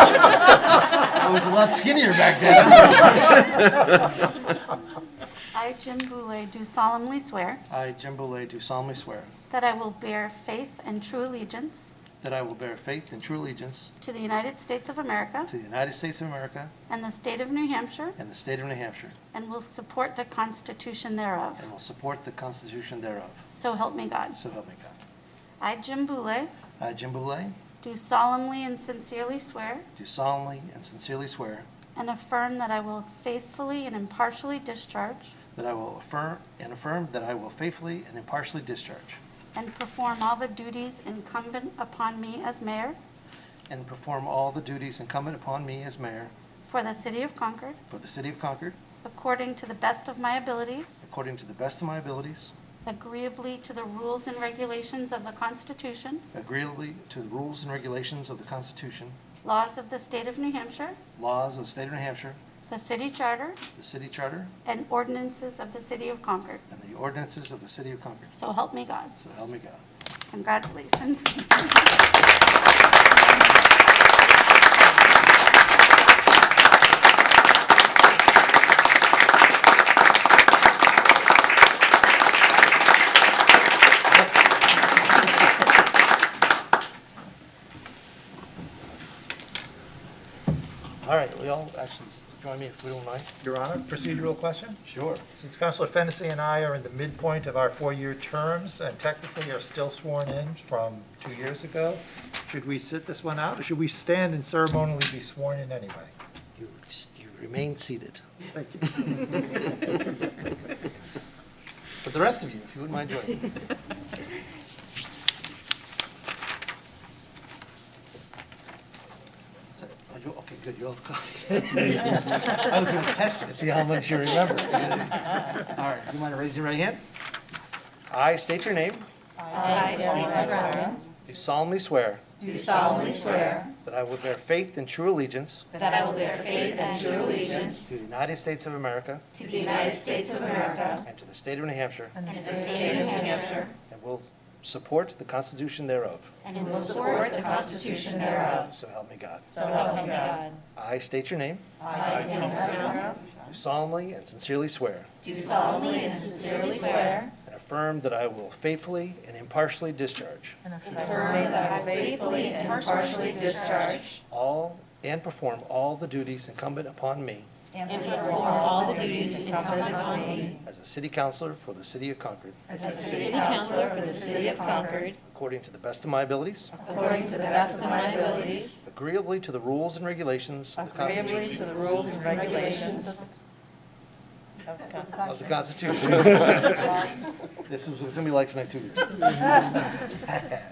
I was a lot skinnier back then. I, Jim Boulay, do solemnly swear I, Jim Boulay, do solemnly swear that I will bear faith and true allegiance that I will bear faith and true allegiance to the United States of America to the United States of America and the state of New Hampshire, and the state of New Hampshire, and will support the Constitution thereof. and will support the Constitution thereof, So help me God. so help me God. I, Jim Boulay, I, Jim Boulay, do solemnly and sincerely swear do solemnly and sincerely swear and affirm that I will faithfully and impartially discharge that I will affirm and affirm that I will faithfully and impartially discharge and perform all the duties incumbent upon me as mayor and perform all the duties incumbent upon me as mayor for the city of Concord for the city of Concord according to the best of my abilities, according to the best of my abilities, agreeably to the rules and regulations of the Constitution, agreeably to the rules and regulations of the Constitution, laws of the state of New Hampshire, laws of the state of New Hampshire, the city charter, the city charter, and ordinances of the city of Concord. and the ordinances of the city of Concord. So help me God. So help me God. Congratulations. All right, will you all actually join me if we don't mind? Your Honor, procedural question? Sure. Since Counselor Fennessy and I are in the midpoint of our four-year terms and technically are still sworn in from two years ago, should we sit this one out, or should we stand and ceremonially be sworn in anyway? You you remain seated. Thank you. But the rest of you, if you wouldn't mind joining. me. So, are you- Okay, good, you're all caught. I was going to test you to see how much you remember. All right, you mind raising your right hand? I state your name. I, Do solemnly swear Do solemnly swear that I will bear faith and true allegiance that I will bear faith and true allegiance to the United States of America to the United States of America and to the state of New Hampshire, and to the state of New Hampshire, and will support the Constitution thereof, and will support the Constitution thereof. so help me God. So help me God. I state your name. I, solemnly and sincerely swear Do solemnly and sincerely swear and affirm that I will faithfully and impartially discharge affirm that I will faithfully and impartially discharge all and perform all the duties incumbent upon me and perform all the duties incumbent on me as a city councillor for the city of Concord, as a city councillor for the city of Concord, according to the best of my abilities, according to the best of my abilities, agreeably to the rules and regulations of the Constitution. agreeably to the rules and regulations Of the Constitution. This is what it's going to be like for the next two years.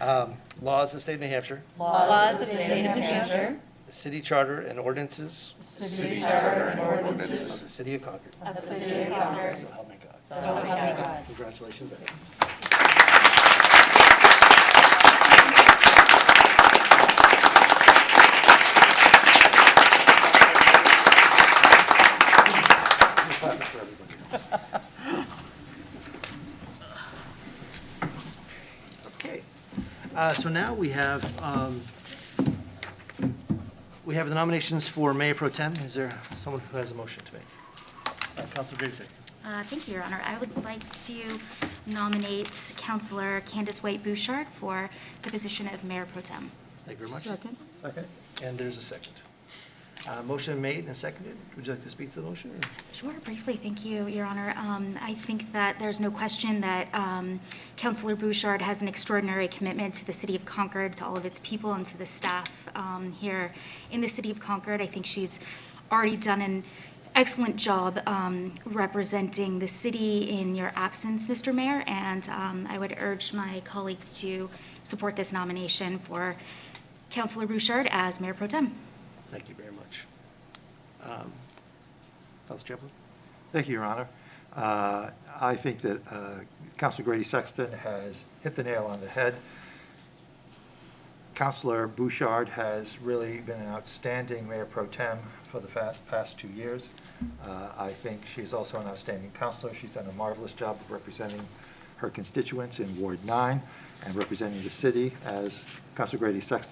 Um, Laws of the state of New Hampshire, Laws of the state of New Hampshire, the city charter and ordinances city charter and ordinances of the city of Concord. of the city of Concord. So help me God. So help me God. Congratulations. Ed. Okay. Uh, So now we have, um, we have the nominations for Mayor Pro Tem. Is there someone who has a motion to make? Uh, Councilor Griggs Sexton. Uh, Thank you, Your Honor. I would like to nominate Counselor Candace White Bouchard for the position of Mayor Pro Tem. Thank you very much. Second? And there's a second. Uh, Motion made and seconded. Would you like to speak to the motion? or- Sure, briefly, thank you, Your Honor. Um, I think that there's no question that um, Counselor Bouchard has an extraordinary commitment to the city of Concord, to all of its people, and to the staff um, here in the city of Concord. I think she's already done an excellent job um, representing the city in your absence, Mr. Mayor, and um, I would urge my colleagues to support this nomination for Counselor Bouchard as Mayor Pro Tem. Thank you very much. Um, Councilor Chaplin? Thank you, Your Honor. Uh, I think that uh, Counselor Grady Sexton has hit the nail on the head. Counselor Bouchard has really been an outstanding mayor pro tem for the fa- past two years. Uh, I think she's also an outstanding counselor. She's done a marvelous job of representing her constituents in Ward 9 and representing the city, as Counselor Grady Sexton